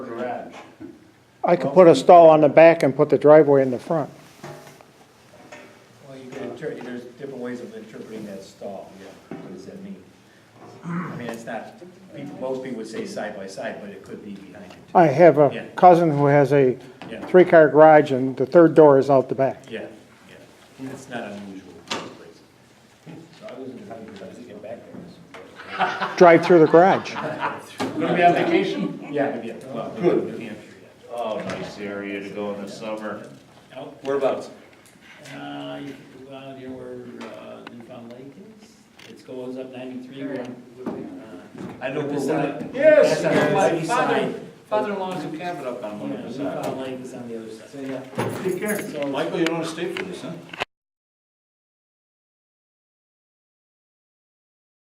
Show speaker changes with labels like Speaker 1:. Speaker 1: I could put a stall on the back and put the driveway in the front.
Speaker 2: Well, you could interpret, there's different ways of interpreting that stall, yeah, what does that mean? I mean, it's not, people, most people would say side by side, but it could be behind it,
Speaker 1: I have
Speaker 2: Yeah.
Speaker 1: a cousin who has a
Speaker 2: Yeah.
Speaker 1: three-car garage and the third door is out the back.
Speaker 2: yeah, yeah, it's not unusual in other places. So I was in the hundreds, I was thinking back there.
Speaker 1: Drive through the garage.
Speaker 3: Gonna be on vacation?
Speaker 2: Yeah, maybe, well, maybe New Hampshire,
Speaker 3: Oh, nice area to go in the summer.
Speaker 2: yeah. Out,
Speaker 3: Whereabouts?
Speaker 2: uh, you can go out here where, uh, Newfound Lake is, it goes up ninety-three, uh, I know where
Speaker 3: Yes,
Speaker 2: That's on the
Speaker 3: my
Speaker 2: city
Speaker 3: father,
Speaker 2: side.
Speaker 3: father-in-law's in Cabot up on one of the sides.
Speaker 2: Newfound Lake is on the other side.
Speaker 3: Michael, you don't want to stay for this, huh?